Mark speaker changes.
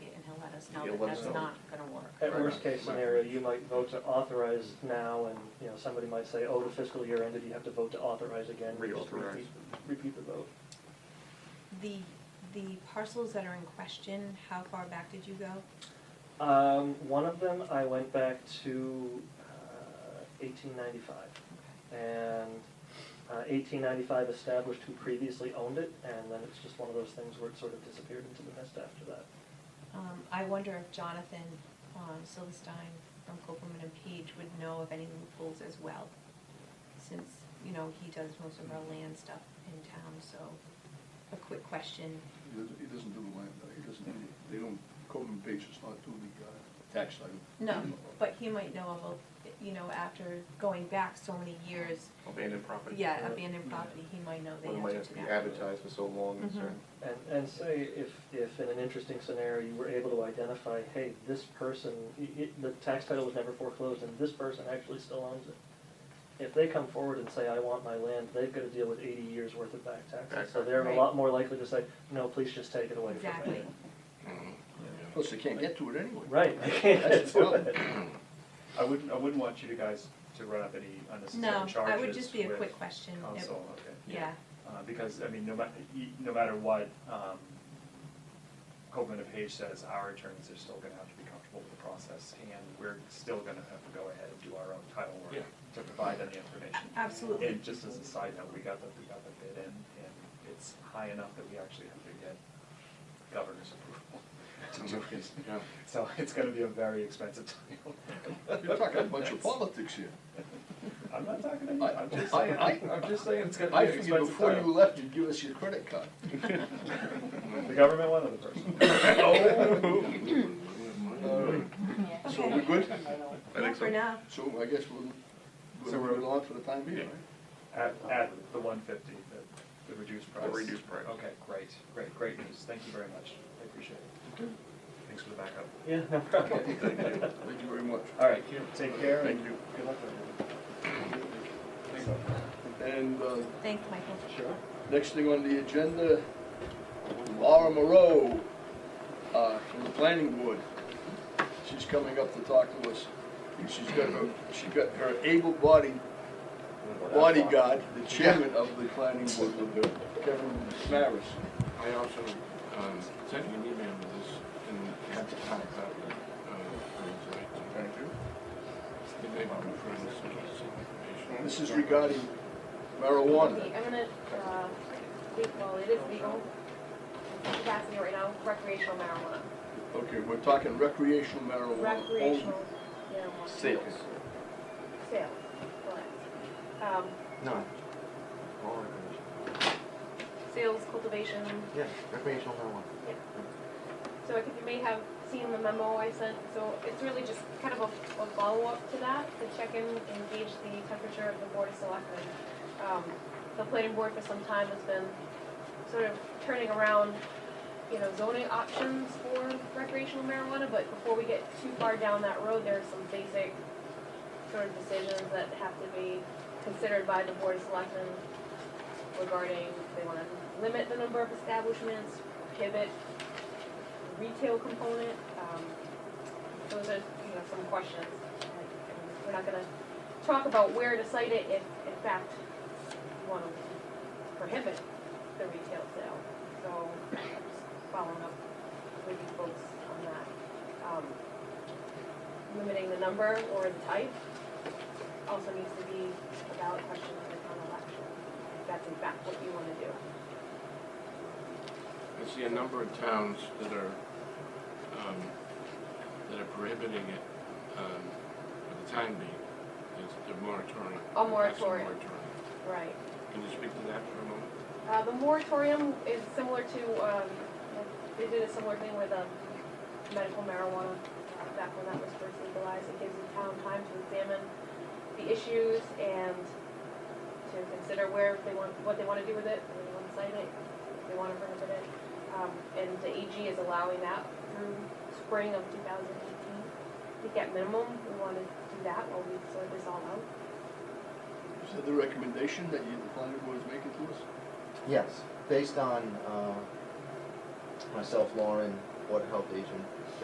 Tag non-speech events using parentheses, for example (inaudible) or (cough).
Speaker 1: now
Speaker 2: You'll
Speaker 1: that
Speaker 2: let us
Speaker 1: that's
Speaker 2: know.
Speaker 1: not gonna work.
Speaker 3: At
Speaker 2: Right.
Speaker 3: worst case scenario, you might vote to authorize now, and, you know, somebody might say, oh, the fiscal year ended, you have to vote to authorize again. You just
Speaker 2: Reauthorize.
Speaker 3: repeat- Repeat the vote.
Speaker 1: The, the parcels that are in question, how far back did you go?
Speaker 3: Um, one of them, I went back to uh, eighteen ninety-five,
Speaker 1: Okay.
Speaker 3: and uh, eighteen ninety-five established who previously owned it, and then it's just one of those things where it sort of disappeared into the mist after that.
Speaker 1: Um, I wonder if Jonathan, um, Silverstein from Copeland and Page would know of any loopholes as well. Since, you know, he does most of our land stuff in town, so a quick question,
Speaker 4: He doesn't, he doesn't do the land, uh, he doesn't, do- they don't, Coleman Page does not do the uh, tax title.
Speaker 1: No, but he might know of, a- you know, after going back so many years,
Speaker 2: Abandoned property.
Speaker 1: yeah,
Speaker 3: Right.
Speaker 1: abandoned property, he might know the
Speaker 2: Well, it might
Speaker 1: answer
Speaker 2: have
Speaker 1: to
Speaker 2: to be
Speaker 1: that.
Speaker 2: advertised for so long, and
Speaker 1: Mhm.
Speaker 2: certain.
Speaker 3: And, and say if, if in an interesting scenario, you were able to identify, hey, this person, i- i the tax title was never foreclosed and this person actually still owns it. If they come forward and say, I want my land, they've gotta deal with eighty years worth of back
Speaker 2: Back
Speaker 3: taxes. So they're a
Speaker 1: taxes.
Speaker 3: lot more likely to say, no, please just take it away from me.
Speaker 1: Exactly,
Speaker 4: Plus, they can't get to it anyway.
Speaker 3: Right, (laughs) I can't
Speaker 4: That's
Speaker 3: do
Speaker 4: the
Speaker 3: it.
Speaker 5: I wouldn't, I wouldn't want you to guys to run up any
Speaker 1: no,
Speaker 5: unnecessary charges
Speaker 1: I would just be a
Speaker 5: with
Speaker 1: quick question, It-
Speaker 5: Council, okay.
Speaker 1: yeah,
Speaker 5: Uh, because, I mean, no matter, no matter what, um, Copeland and Page says, our attorneys are still gonna have to be comfortable with the process, and we're still gonna have to go ahead and do our own title work to provide any information.
Speaker 1: absolutely.
Speaker 5: And just as a side note, we got the, we got the bid in, and it's high enough that we actually have to get governor's approval to do it.
Speaker 2: Yeah.
Speaker 5: So it's gonna be a very expensive title.
Speaker 4: You're talking a bunch of politics here.
Speaker 5: I'm not talking to you,
Speaker 4: I,
Speaker 5: I'm just,
Speaker 4: I, I-
Speaker 5: I'm just saying it's gonna
Speaker 4: I
Speaker 5: be an
Speaker 4: figured
Speaker 5: expensive
Speaker 4: before you
Speaker 5: title.
Speaker 4: left, you'd give us your credit
Speaker 5: (laughs)
Speaker 4: card.
Speaker 5: The government wanted the person.
Speaker 4: All right, so we're good?
Speaker 1: Yeah, for now,
Speaker 4: So I guess we'll,
Speaker 5: So
Speaker 4: we'll
Speaker 5: we're-
Speaker 4: move it on for the time being, right?
Speaker 5: At, at the one fifty, the, the reduced price.
Speaker 2: The reduced price.
Speaker 5: Okay, great, great, great news, thank you very much, I appreciate it. Thanks for the backup.
Speaker 3: Yeah, no problem.
Speaker 4: Thank you very much.
Speaker 5: All right, take care and
Speaker 4: Thank you.
Speaker 5: good luck with everything.
Speaker 4: And, uh,
Speaker 1: thanks, Michael.
Speaker 4: Sure. Next thing on the agenda, Laura Moreau, uh, from the planning board. She's coming up to talk to us. And She's got her, she got her able-bodied bodyguard, the chairman of the planning board, with her, Kevin Maris.
Speaker 6: I also um, sent you an email with this and had to type out uh, the
Speaker 4: Thank you.
Speaker 6: They may want to refer this information.
Speaker 4: This is regarding marijuana.
Speaker 7: I'm gonna, uh, speak, well, it is legal, in capacity right now, recreational marijuana.
Speaker 4: Okay, we're talking recreational marijuana. only.
Speaker 7: Recreational marijuana.
Speaker 2: Sales.
Speaker 7: Sales, Oh. correct. Um,
Speaker 2: No. All recreation.
Speaker 7: sales, cultivation,
Speaker 2: Yeah, recreational marijuana.
Speaker 7: so I think you may have seen the memo I sent, so it's really just kind of a, a follow-up to that, to check in and gauge the temperature of the board of selectmen. Um, the planning board for some time has been sort of turning around, you know, zoning options for recreational marijuana, but before we get too far down that road, there are some basic sort of decisions that have to be considered by the board of selectmen regarding if they wanna limit the number of establishments, prohibit retail component, um, those are, you know, some questions. And We're not gonna talk about where to cite it if, in fact, you wanna prohibit the retail sale. So, just following up with you folks on that. Um, Limiting the number or the type also needs to be a ballot question for the town election, if that's in fact what you wanna do.
Speaker 6: I see a number of towns that are, um, that are prohibiting it, um, for the time being. It's the moratorium.
Speaker 7: A
Speaker 6: That's
Speaker 7: moratorium.
Speaker 6: moratorium.
Speaker 7: Right.
Speaker 6: Can you speak to that for a moment?
Speaker 7: Uh, the moratorium is similar to, um, they did a similar thing with, um, medical marijuana, uh, back when that was first legalized, it gives the town time to examine the issues and to consider where they want, what they wanna do with it, whether they wanna cite it, if they wanna prohibit it. Um, and the AG is allowing that through spring of two thousand eighteen. I think at minimum, we wanna do that while we sort this all out.
Speaker 4: Is that the recommendation that you, the planning board is making to us?
Speaker 8: Yes, based on uh, myself, Lauren, Board of Health agent,